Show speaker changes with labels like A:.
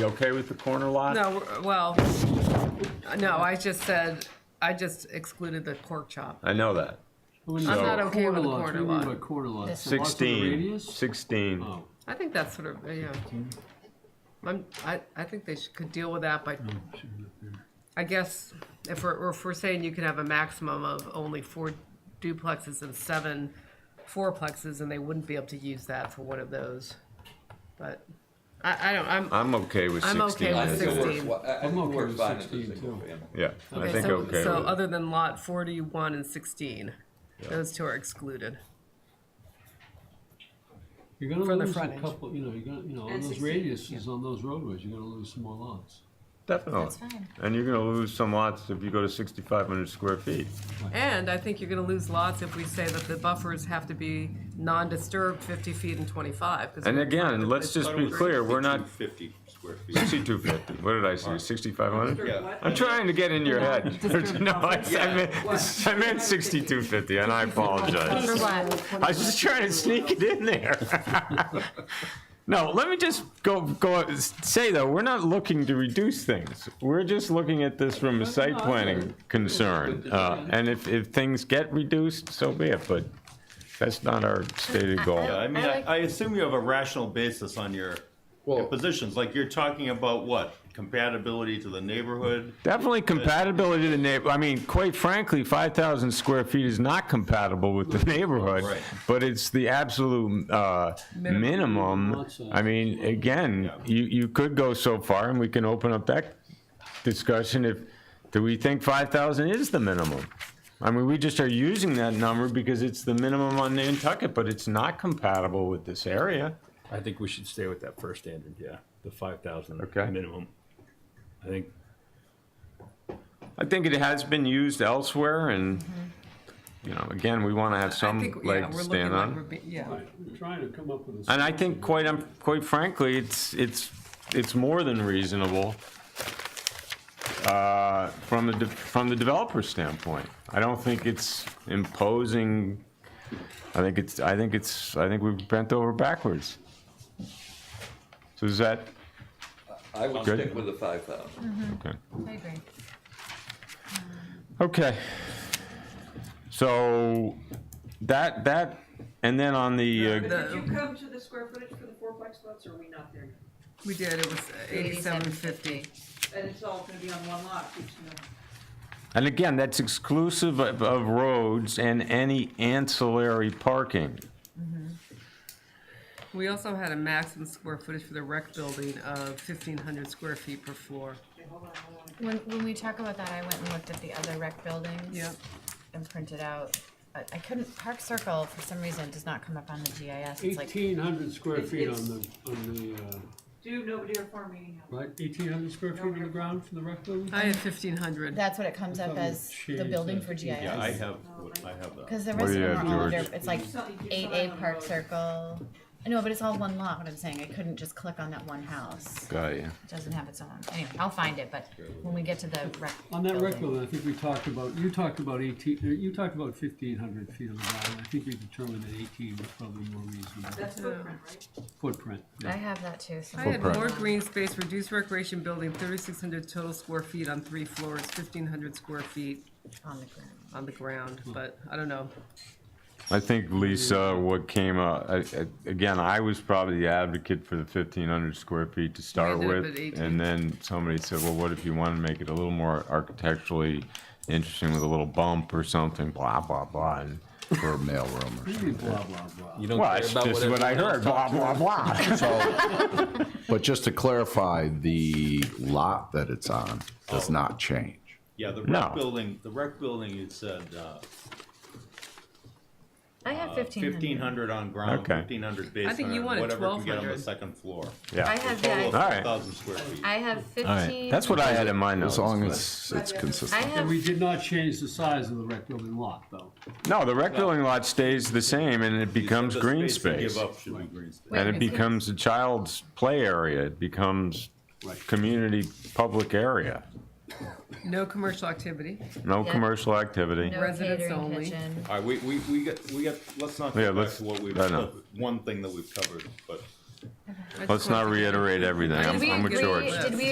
A: You okay with the corner lot?
B: No, we're- well, no, I just said, I just excluded the pork chop.
A: I know that.
C: I'm
A: I'm not
B: okay with a quarter lot.
C: Quarter lot. Lots of the
A: 16,
C: radius?
A: 16.
C: Oh,
B: I think that's sort of, yeah. I'm, I, I think they should, could deal with that by, I guess, if we're, or if we're saying you can have a maximum of only four duplexes and seven fourplexes, and they wouldn't be able to use that for one of those. But, I, I don't, I'm,
A: I'm okay with
B: I'm
A: 16.
B: okay
D: I
B: with
D: think it
B: 16.
D: works, well- I-
C: I'm
D: I think it
C: okay
D: works
C: with
D: fine as a
C: 16
D: single
C: too.
D: family.
A: Yeah, I
B: okay,
A: think
B: so,
A: okay.
B: so
A: with it.
B: other than lot forty-one and sixteen, those two are excluded.
C: You're gonna
B: For the
C: lose a
B: frontage.
C: couple, you know, you're gonna, you know, on
E: And
C: those
E: 16,
C: radiuses, on those roadways, you're gonna lose some more lots.
A: Definitely.
E: That's fine.
A: And you're gonna lose some lots if you go to 6,500 square feet.
B: And I think you're gonna lose lots if we say that the buffers have to be non-disturbed fifty feet and twenty-five. 'cause
A: And
B: we're gonna
A: again,
B: find a
A: let's
B: place-
A: just be clear, we're not,
D: 50 square feet.
A: 6,250, what did I say, 6,500?
D: Yeah.
A: I'm trying to get in your head. No, I I meant, I meant 6,250, and I apologize.
E: For what?
A: I was just trying to sneak it in there. no, let me just go go say though, we're not looking to reduce things. We're just looking at this from a site planning concern. Uh, and if, if things get reduced, so be it. But that's not our stated goal.
F: Yeah, I mean,
E: I
F: I,
E: like-
F: I assume you have a rational basis on your, your positions, like you're talking about what? Compatibility to the neighborhood?
A: Definitely compatibility to the neighbor. I mean, quite frankly, 5,000 square feet is not compatible with the neighborhood,
F: Right.
A: but it's the absolute uh, minimum.
C: Lot size.
A: I mean, again, you, you could go so far, and we can open up that discussion if, do we think 5,000 is the minimum? I mean, we just are using that number because it's the minimum on Nantucket, but it's not compatible with this area.
G: I think we should stay with that first standard, yeah, the five thousand
A: Okay.
G: minimum. I think,
A: I think it has been used elsewhere, and, you know, again, we want to have
B: I
A: some
B: think, yeah,
A: leg
B: we're
A: to
B: looking
A: um, stand
B: like
A: on.
B: we're be- Yeah,
C: We're trying to come up with a.
A: And I think quite, um, quite frankly, it's, it's, it's more than reasonable uh, from the, de- from the developer standpoint. I don't think it's imposing, I think it's, I think it's, I think we've bent over backwards. So is that,
D: I would
A: Good.
D: stick with the 5,000.
A: okay.
E: I agree.
A: Okay. So that, that, and then on the,
H: But
A: uh,
H: did you come to the square footage for the fourplex lots, or are we not there? yet?
B: we did, it was eighty-seven fifty.
H: And it's all gonna be on one lot, each one.
A: and again, that's exclusive of of roads and any ancillary parking.
B: We also had a maximum square footage for the rec building of fifteen hundred square feet per floor.
H: Okay, hold on, hold on.
E: When, when we talk about that, I went and looked at the other rec buildings.
B: Yep.
E: And printed out, I, I couldn't, Park Circle, for some reason, does not come up on the GIS, it's like,
C: Eighteen hundred square
H: It's-
C: feet on
H: it's-
C: the, on the, uh,
H: Do nobody or farm meeting house.
C: right, eighteen hundred square feet on the ground for the rec building?
B: I had fifteen hundred.
E: that's what it comes up as, the building for GIS.
F: yeah, I have, Oh, I have that.
E: Cause the
A: What
E: rest
A: do
E: of
A: you have,
E: them are all
A: George?
E: under, it's like
H: You saw- you saw
E: eight
H: that
E: A
H: on the
E: Park
H: road.
E: Circle, no, but it's all one lot, what I'm saying, I couldn't just click on that one house,
A: Got you.
E: it doesn't have its own, anyway, I'll find it, but when we get to the rec
C: On that rec
E: building.
C: building, I think we talked about, you talked about eighteen, uh, you talked about fifteen hundred feet on the ground. I think we determined that eighteen was probably more reasonable
H: That's footprint, right?
C: footprint.
E: I have that too, so.
B: I had more green space, reduced recreation building, thirty-six hundred total square feet on three floors, fifteen hundred square feet
E: On the ground.
B: on the ground, but I don't know.
A: I think Lisa, what came up, I- I- again, I was probably the advocate for the fifteen hundred square feet to start
B: ended up
A: with.
B: at 18.
A: And then somebody said, well, what if you want to make it a little more architecturally interesting with a little bump or something, blah, blah, blah. and-
I: for a mailroom or something.
C: Blah, blah, blah.
F: You don't
A: Well, that's just what I heard, blah, blah, blah.
I: So- But just to clarify, the lot that it's on does not change.
F: Yeah, the
A: No.
F: rec building, the rec building, it said, uh,
E: I have fifteen hundred.
F: fifteen hundred on ground,
A: Okay.
F: fifteen hundred base
B: think you
F: on
B: wanted
F: whatever can get on the
B: 1200.
F: second floor.
E: I
A: Yeah,
E: have,
F: Total of
E: yeah,
A: All right.
F: 4,000 square feet.
E: I have fifteen.
A: that's what I had in my notes.
I: As long as it's
E: I
I: consistent.
C: And
E: have,
C: we did not change the size of the rec building lot, though.
A: No, the rec building lot stays the same and it
F: You said
A: becomes
F: the
A: green
F: you
A: space.
F: Give up should be green space.
A: And it
E: Wait, is it-
A: becomes a child's play area, it becomes community, public area.
B: No commercial activity.
A: No
E: Yeah.
A: commercial activity.
E: no
B: Residents
E: catering
B: only.
E: kitchen.
F: All right, we, we, we got, we got, let's not
A: Yeah,
F: go back
A: let's-
F: to what we've,
A: I know.
F: one thing that we've covered, but
B: I just
A: Let's
B: want
A: not
B: to-
A: reiterate everything.
B: I
A: I'm,
B: just
E: Did we
A: I'm with
E: agree-
A: George.
E: Did we